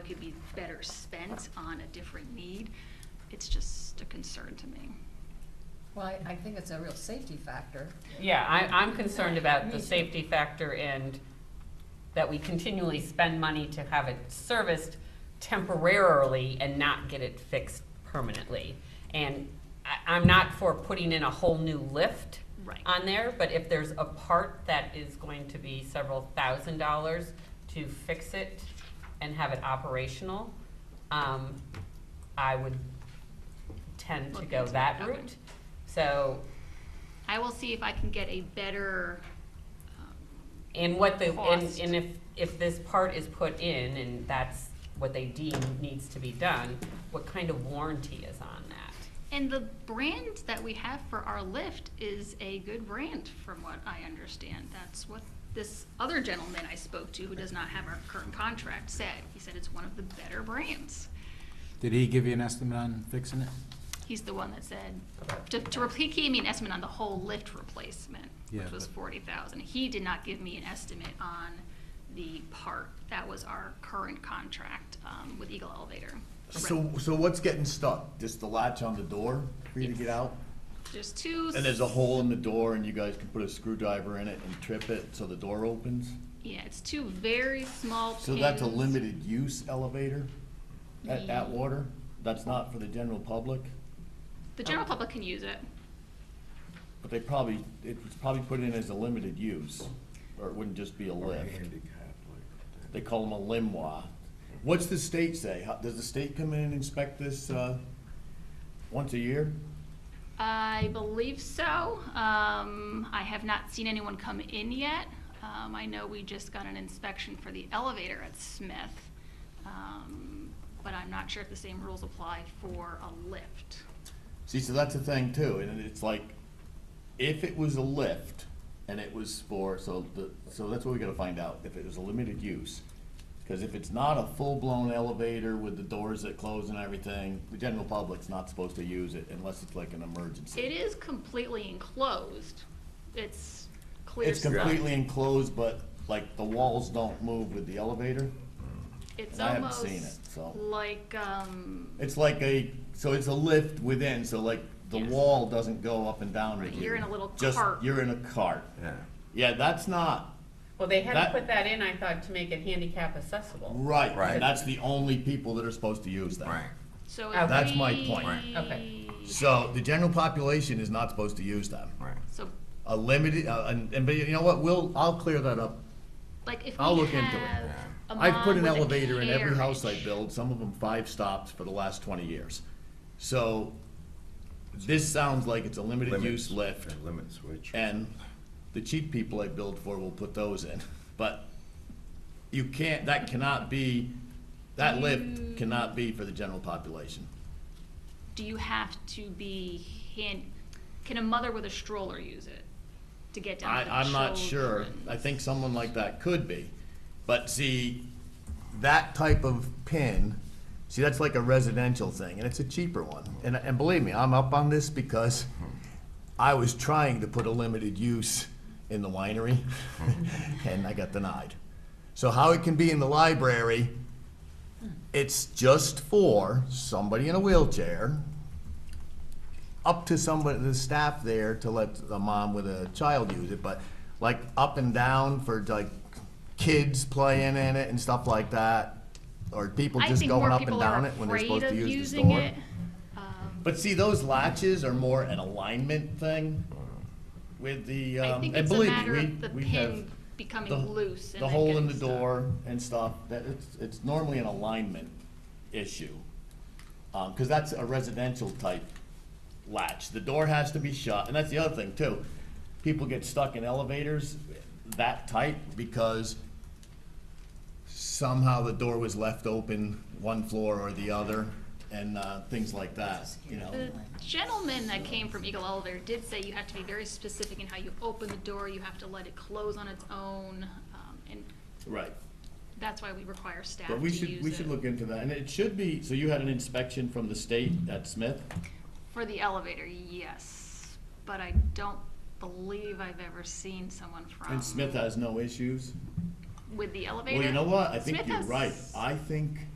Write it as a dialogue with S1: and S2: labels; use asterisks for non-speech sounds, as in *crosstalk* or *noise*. S1: could be better spent on a different need. It's just a concern to me.
S2: Well, I, I think it's a real safety factor.
S3: Yeah, I, I'm concerned about the safety factor and that we continually spend money to have it serviced temporarily and not get it fixed permanently. And I, I'm not for putting in a whole new lift
S1: Right.
S3: on there, but if there's a part that is going to be several thousand dollars to fix it and have it operational, um, I would tend to
S1: Look
S3: go
S1: into it,
S3: that
S1: okay.
S3: route. So
S1: I will see if I can get a better, um,
S3: And what the, and,
S1: Cost.
S3: and if, if this part is put in and that's what they deem needs to be done, what kind of warranty is on that?
S1: and the brand that we have for our lift is a good brand, from what I understand. That's what this other gentleman I spoke to, who does not have our current contract, said. He said it's one of the better brands.
S4: Did he give you an estimate on fixing it?
S1: He's the one that said, to, to, repl- he gave me an estimate on the whole lift replacement,
S4: Yeah,
S1: which was
S4: but-
S1: forty thousand. He did not give me an estimate on the part. That was our current contract, um, with Eagle Elevator.
S5: So, so what's getting stuck? Just the latch on the door for you to get out?
S1: There's two.
S5: And there's a hole in the door and you guys can put a screwdriver in it and trip it so the door opens?
S1: Yeah, it's two very small pins.
S5: So that's a limited use elevator at Atwater? That's not for the general public?
S1: The general public can use it.
S5: But they probably, it was probably put in as a limited use, or it wouldn't just be a lift. They call them a limois. What's the state say? How- Does the state come in and inspect this, uh, once a year?
S1: I believe so. Um, I have not seen anyone come in yet. Um, I know we just got an inspection for the elevator at Smith, um, but I'm not sure if the same rules apply for a lift.
S5: See, so that's the thing too, and it's like, if it was a lift and it was for, so the, so that's what we gotta find out, if it was a limited use. Cause if it's not a full-blown elevator with the doors that close and everything, the general public's not supposed to use it unless it's like an emergency.
S1: It is completely enclosed. It's clear.
S5: It's completely enclosed, but like the walls don't move with the elevator.
S1: It's
S5: I haven't seen
S1: almost
S5: it, so.
S1: like, um,
S5: It's like a, so it's a lift within, so like the
S1: Yes.
S5: wall doesn't go up and down with
S1: Right,
S5: you.
S1: you're in a little
S5: Just-
S1: cart.
S5: You're in a cart. Yeah. Yeah, that's not,
S3: Well, they had
S5: That-
S3: to put that in, I thought, to make it handicap accessible.
S5: Right. and
S6: Right.
S5: that's the only people that are supposed to use that.
S6: Right.
S1: so
S3: Okay.
S1: if
S5: That's my
S1: we-
S5: point.
S6: Right.
S3: Okay.
S5: So the general population is not supposed to use them.
S6: Right.
S1: So,
S5: A limited, uh, and, and, but you know what, we'll, I'll clear that up.
S1: like, if we
S5: I'll look into it.
S1: have a
S5: I've put
S1: mom
S5: an
S1: with a
S5: elevator in every house I
S1: carriage-
S5: build, some of them five stops for the last twenty years. So this sounds like it's a limited use lift,
S6: Limit switch.
S5: and the cheap people I build for will put those in. *laughs* But you can't, that cannot be, that lift
S1: Mm.
S5: cannot be for the general population.
S1: do you have to be hand, can a mother with a stroller use it to get down to the
S5: I, I'm not sure.
S1: children?
S5: I think someone like that could be. But see, that type of pin, see, that's like a residential thing, and it's a cheaper one. And, and believe me, I'm up on this because I was trying to put a limited use in the winery, *laughs* and I got denied. So how it can be in the library, it's just for somebody in a wheelchair, up to somebody, the staff there to let a mom with a child use it, but like up and down for like kids playing in it and stuff like that, or people
S1: I
S5: just
S1: think more
S5: going up and
S1: people are
S5: down it when they're
S1: afraid
S5: supposed to
S1: of
S5: use the
S1: using
S5: door.
S1: it.
S5: But see, those latches are more an alignment thing with the,
S1: I
S5: um,
S1: think
S5: and
S1: it's a
S5: believe
S1: matter
S5: me,
S1: of the
S5: we, we have
S1: pin becoming
S5: the,
S1: loose and
S5: the
S1: then
S5: hole in
S1: getting
S5: the
S1: stuck.
S5: door and stuff, that, it's, it's normally an alignment issue. Um, cause that's a residential type latch, the door has to be shut, and that's the other thing too. People get stuck in elevators that tight because somehow the door was left open one floor or the other, and, uh, things like that, you know?
S1: The gentleman that came from Eagle Elevator did say you have to be very specific in how you open the door, you have to let it close on its own, um, and
S5: Right.
S1: that's why we require staff to
S5: But
S1: use it.
S5: we should, we should look into that, and it should be, so you had an inspection from the state at Smith?
S1: For the elevator, yes, but I don't believe I've ever seen someone from.
S5: And Smith has no issues?
S1: With the elevator?
S5: Well, you know what, I think
S1: Smith
S5: you're
S1: has-
S5: right, I think